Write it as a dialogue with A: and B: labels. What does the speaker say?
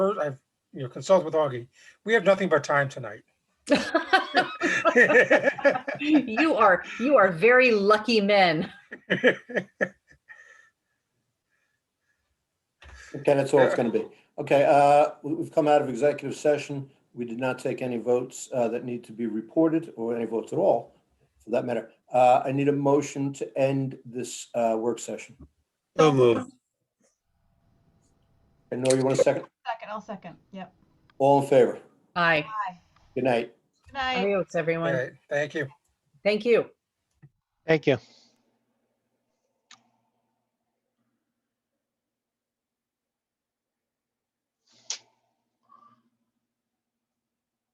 A: first, I've, you know, consulted with Augie. We have nothing but time tonight.
B: you are you are very lucky men.
C: Okay, that's all it's going to be. Okay, uh, we- we've come out of executive session. We did not take any votes uh, that need to be reported or any votes at all, for that matter. Uh, I need a motion to end this uh, work session.
D: So moved.
C: And Nora, you want a second?
E: Second, I'll second. Yep.
C: All in favor?
B: Hi.
C: Good night.
E: Good night.
B: Adios,
A: All
B: everyone.
A: right, Thank you.
B: Thank you.
D: Thank you.